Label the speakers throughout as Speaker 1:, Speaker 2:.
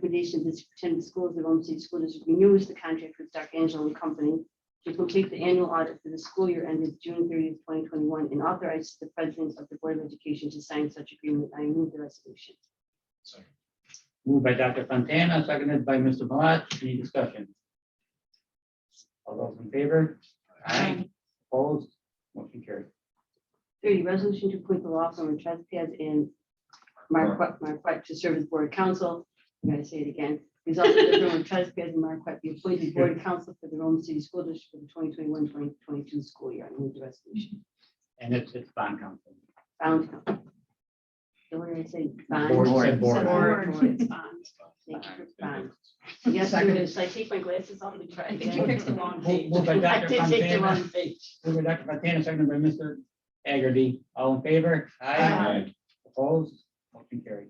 Speaker 1: recommendation, the superintendent of schools of Rome City School District renews the contract with Dark Angelo and Company to complete the annual audit for the school year ended June thirtieth, twenty twenty-one, and authorize the president of the Board of Education to sign such agreement. I move the resolution.
Speaker 2: Second.
Speaker 3: Moved by Dr. Fontana, seconded by Mr. Malat. Any discussion? All those in favor? Aye. Opposed? Motion carried.
Speaker 1: Thirty, resolution to appoint the law firm of Trespad and Marquette, Marquette to serve as board counsel. I'm gonna say it again. Result that the firm of Trespad and Marquette be appointed board counsel for the Rome City School District for the 2021-2022 school year. I move the resolution.
Speaker 3: And it's, it's bond council.
Speaker 1: Bound counsel. So we're gonna say bond.
Speaker 3: Board, said
Speaker 1: Said
Speaker 3: board.
Speaker 1: board.
Speaker 4: Board, it's fine.
Speaker 1: Thank you for bond. Yes, there it is. Should I take my glasses off and try
Speaker 4: I think you
Speaker 1: again?
Speaker 4: picked the wrong
Speaker 3: Moved
Speaker 4: page.
Speaker 3: moved by
Speaker 1: I did
Speaker 3: Dr.
Speaker 1: take the
Speaker 3: Fontana,
Speaker 1: wrong page.
Speaker 3: moved by Dr. Fontana, seconded by Mr. Hagerty. All in favor? Uh,
Speaker 4: Aye.
Speaker 3: Opposed? Motion carried.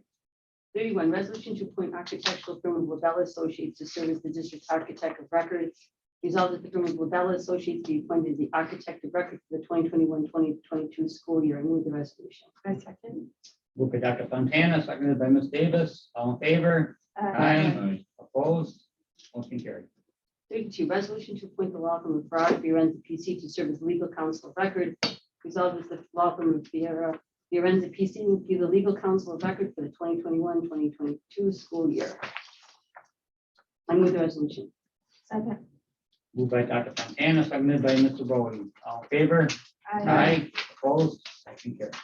Speaker 1: Thirty-one, resolution to appoint architectural firm of Lobella Associates to serve as the district's architect of record. Resolved that the firm of Lobella Associates be appointed the architect of record for the 2021-2022 school year. I move the resolution.
Speaker 4: I second.
Speaker 3: Moved by Dr. Fontana, seconded by Ms. Davis. All in favor? Aye. Opposed? Motion carried.
Speaker 1: Thirty-two, resolution to appoint the law firm of Farrar, Fiorenza, PC to serve as legal counsel of record. Resolved that the law firm of Fiera, Fiorenza, PC will be the legal counsel of record for the 2021-2022 school year. I move the resolution.
Speaker 4: Second.
Speaker 3: Moved by Dr. Fontana, seconded by Mr. Bowen. All in favor? Aye. Opposed? Motion carried.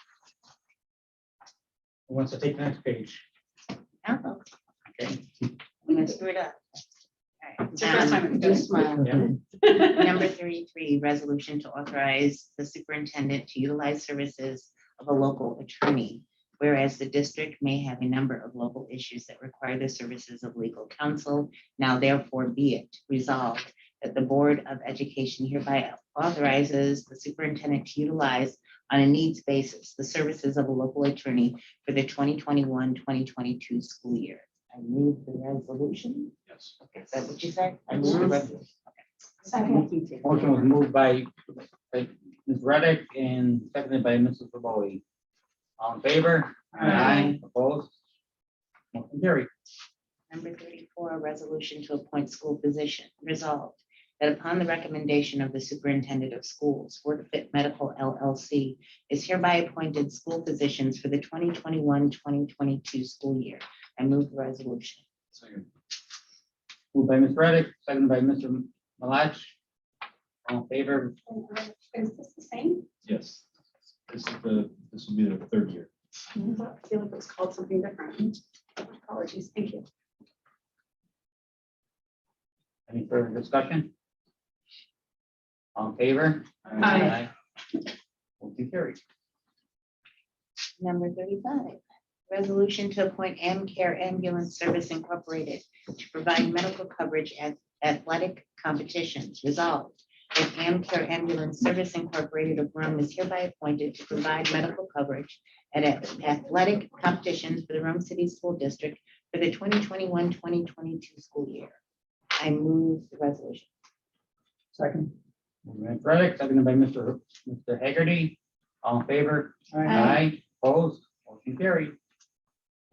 Speaker 3: Who wants to take the next page? Okay.
Speaker 1: And I
Speaker 5: Screwed up.
Speaker 1: It's the first time. Do smile.
Speaker 3: Yeah.
Speaker 5: Number thirty-three, resolution to authorize the superintendent to utilize services of a local attorney. Whereas the district may have a number of local issues that require the services of legal counsel, now therefore be it resolved that the Board of Education hereby authorizes the superintendent to utilize on a needs basis the services of a local attorney for the 2021-2022 school year. I move the resolution.
Speaker 2: Yes.
Speaker 5: Is that what you said? I
Speaker 1: Yes.
Speaker 5: move the resolution.
Speaker 4: Second.
Speaker 3: Motion was moved by, by Ms. Reddick and seconded by Mrs. Bowen. All in favor?
Speaker 5: Aye.
Speaker 3: Opposed? Motion carried.
Speaker 5: Number thirty-four, a resolution to appoint school physician. Resolved that upon the recommendation of the superintendent of schools, WorkFit Medical LLC is hereby appointed school physicians for the 2021-2022 school year. I move the resolution.
Speaker 2: Second.
Speaker 3: Moved by Ms. Reddick, seconded by Mr. Malatch. All in favor?
Speaker 4: Is this the same?
Speaker 2: Yes. This is the, this will be the third year.
Speaker 4: I feel like it was called something different. Apologies, thank you.
Speaker 3: Any further discussion? All in favor? Aye.
Speaker 4: Aye.
Speaker 3: Motion carried.
Speaker 5: Number thirty-five, resolution to appoint AmCare Ambulance Service Incorporated to provide medical coverage at athletic competitions. Resolved that AmCare Ambulance Service Incorporated of Rome is hereby appointed to provide medical coverage at athletic competitions for the Rome City School District for the 2021-2022 school year. I move the resolution.
Speaker 3: Second. Moved by Ms. Reddick, seconded by Mr. Mr. Hagerty. All in favor? Aye. Opposed? Motion carried.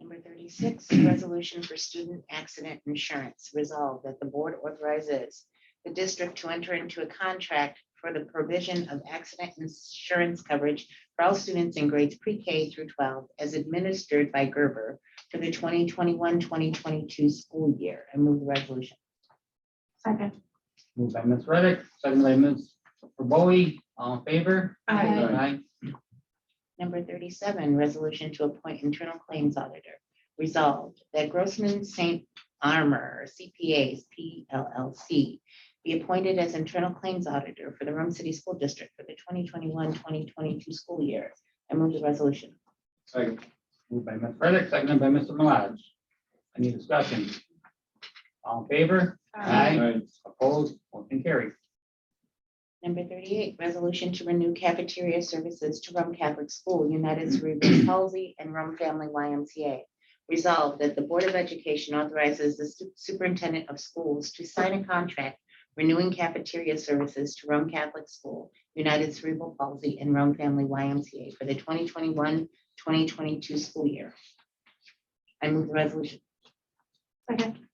Speaker 5: Number thirty-six, resolution for student accident insurance. Resolved that the board authorizes the district to enter into a contract for the provision of accident insurance coverage for all students in grades pre-K through twelve as administered by Gerber for the 2021-2022 school year. I move the resolution.
Speaker 4: Second.
Speaker 3: Moved by Ms. Reddick, seconded by Ms. Bowie, all in favor?
Speaker 4: Aye.
Speaker 5: Number thirty-seven, resolution to appoint internal claims auditor. Resolved that Grossman St. Armor CPAs PLLC be appointed as internal claims auditor for the Rome City School District for the 2021-2022 school year. I move the resolution.
Speaker 2: Second.
Speaker 3: Moved by Ms. Reddick, seconded by Mr. Malatch. Any discussion? All in favor?
Speaker 2: Aye.
Speaker 3: Opposed? Motion carried.
Speaker 5: Number thirty-eight, resolution to renew cafeteria services to Rome Catholic School, United Cerebral Palsy, and Rome Family YMCA. Resolved that the Board of Education authorizes the su- superintendent of schools to sign a contract renewing cafeteria services to Rome Catholic School, United Cerebral Palsy, and Rome Family YMCA for the 2021-2022 school year. I move the resolution.
Speaker 4: Second.